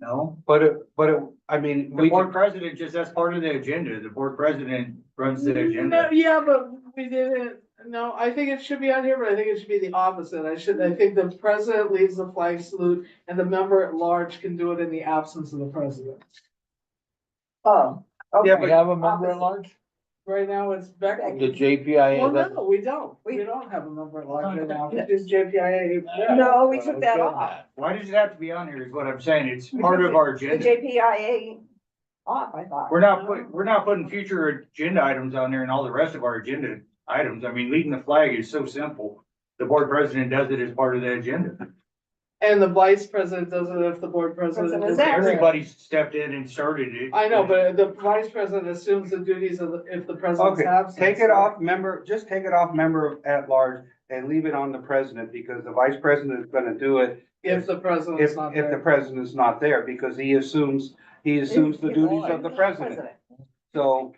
no? But it, but it, I mean, The we, board president just, that's part of the agenda. The board president runs the No, agenda. yeah, but we didn't, no, I think it should be on here, but I think it should be the opposite. I should, I think the president leads the flag salute and the member at large can do it in the absence of the president. Oh, yeah, okay, we have a member at Opposite. large, Right now, it's Becky. the Well, JPI. no, we don't. We- We don't have a member at large right now. It's just JPIA. no, we took that off, Why does it have to be on here is what I'm saying. It's part of our the agenda. JPIA off, I thought. We're not putting, we're not putting future agenda items on there and all the rest of our agenda items. I mean, leading the flag is so simple. The board president does it as part of the agenda. And the vice president does it if the board president President is is absent. there. Everybody stepped in and started it. I know, but the vice president assumes the duties of, the- if the president's Okay, absent. Take it so- off member, just take it off member at large and leave it on the president because the vice president is gonna do it If the if, president's not if the there. president is not there because he assumes, he assumes the He's duties of the He's president. So,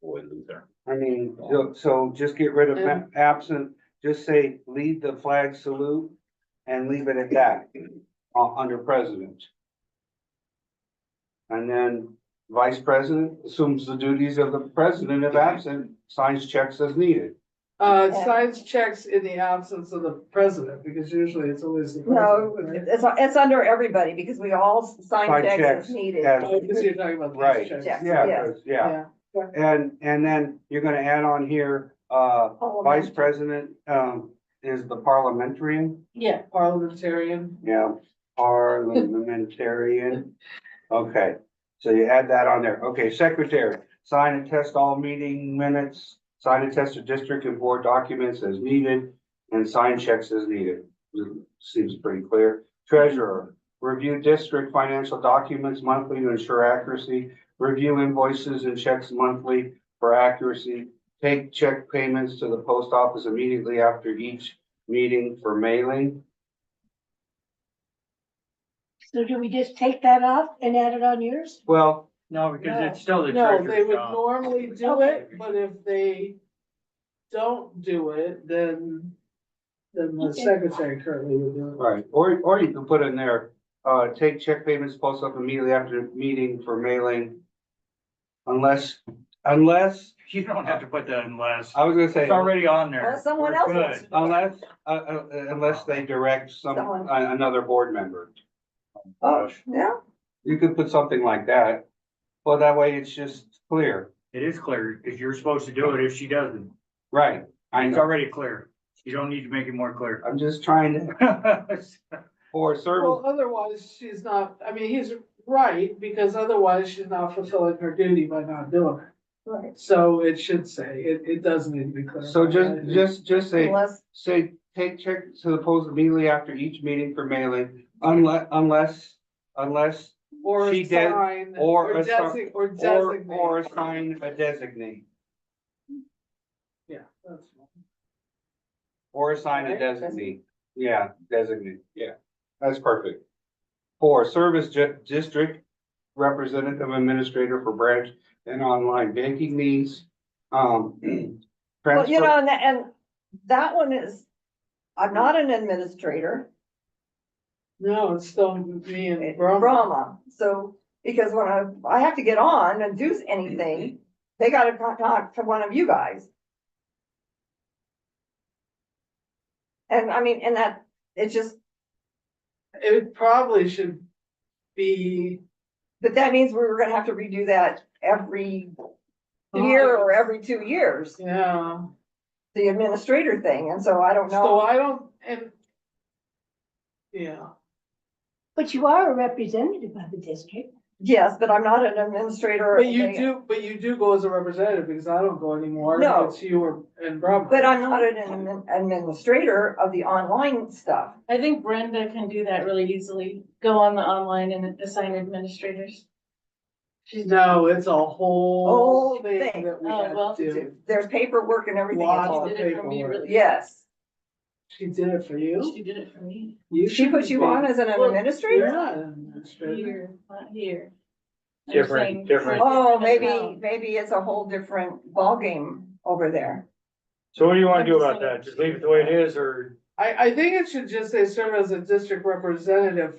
Boy, Luther. I mean, so- so just get rid of Yeah. a- absent, just say lead the flag salute and leave it at that, uh, under president. And then vice president assumes the duties of the president if absent, signs checks as needed. Uh, Yeah. signs checks in the absence of the president, because usually it's always the No, president. right? it's, it's under everybody because we all sign Sign checks checks, as needed. yes. Oh, because you're talking about Right. these checks. Checks, Yeah, yes. 'cause- yeah. And, and then you're gonna add on here, uh, vice president, um, is the parliamentarian. Yeah, parliamentarian. Yeah, parliamentarian. Okay, so you add that on there. Okay, secretary, sign and test all meeting minutes, sign and test the district and board documents as needed, and sign checks as needed. Seems pretty clear. Treasurer, review district financial documents monthly to ensure accuracy, review invoices and checks monthly for accuracy, take check payments to the post office immediately after each meeting for mailing. So do we just take that off and add it on yours? Well, No, because it's still the No, they treasurer's would job. normally do it, but if they don't do it, then, then the Okay. secretary currently would do right, or, or you can put in there, uh, take check payments post up immediately after meeting for mailing. Unless, unless, You don't have to put that unless. I was gonna say, It's already on there. Well, someone We're else good. has to unless, uh, uh, unless they direct some, Someone. a- another board member. Oh, yeah, You could put something like that, well, that way it's just clear, It is clear, because you're supposed to do it if she doesn't. right? I It's know, already clear. You don't need to make it more clear. I'm just trying to, for it. Well, service, otherwise, she's not, I mean, he's right, because otherwise she's not fulfilling her duty by not doing right. it. So it should say, it, it does need to be clarified. so I just, think. just, just say. Unless, Say, take check to the post immediately after each meeting for mailing, unless, unless, unless, Or she did- sign, or or a sign- designate, or or, designate. or assign a designate, Yeah, that's fine. or assign a Right, designate. Yeah, designate, yeah, that's perfect. Four, service ju- district representative administrator for branch and online banking needs, um. well, transfer- you know, and that, and that one is, I'm not an administrator, No, it's still me and Brahma. Brahma, so, because when I, I have to get on and do anything, they gotta con- talk to one of you guys. And I mean, and that, it's just, It probably should be. but that means we're gonna have to redo that every year or every two years, Yeah, the administrator thing, and so I don't so know. I don't, and. Yeah, But you are a representative of the district. Yes, but I'm not an administrator. but you they- do, but you do go as a representative, because I don't go anymore, No. it's you or, and Brahma. But I'm not an admin- administrator of the online stuff. I think Brenda can do that really easily. Go on the online and assign administrators. No, it's a whole Whole thing thing. that we Oh, well, have to do. There's paperwork and everything Lots involved. of She did it for me, paperwork. really. Yes. She did it for you? She did it for me. She put you on as an Well, You're administrator? not an administrator. Here, not here. I'm Different- saying- different. Oh, maybe, Well, maybe it's a whole different ballgame over there. So what do you wanna do about that? Just leave it the way it is or? I, I think it should just say serve as a district representative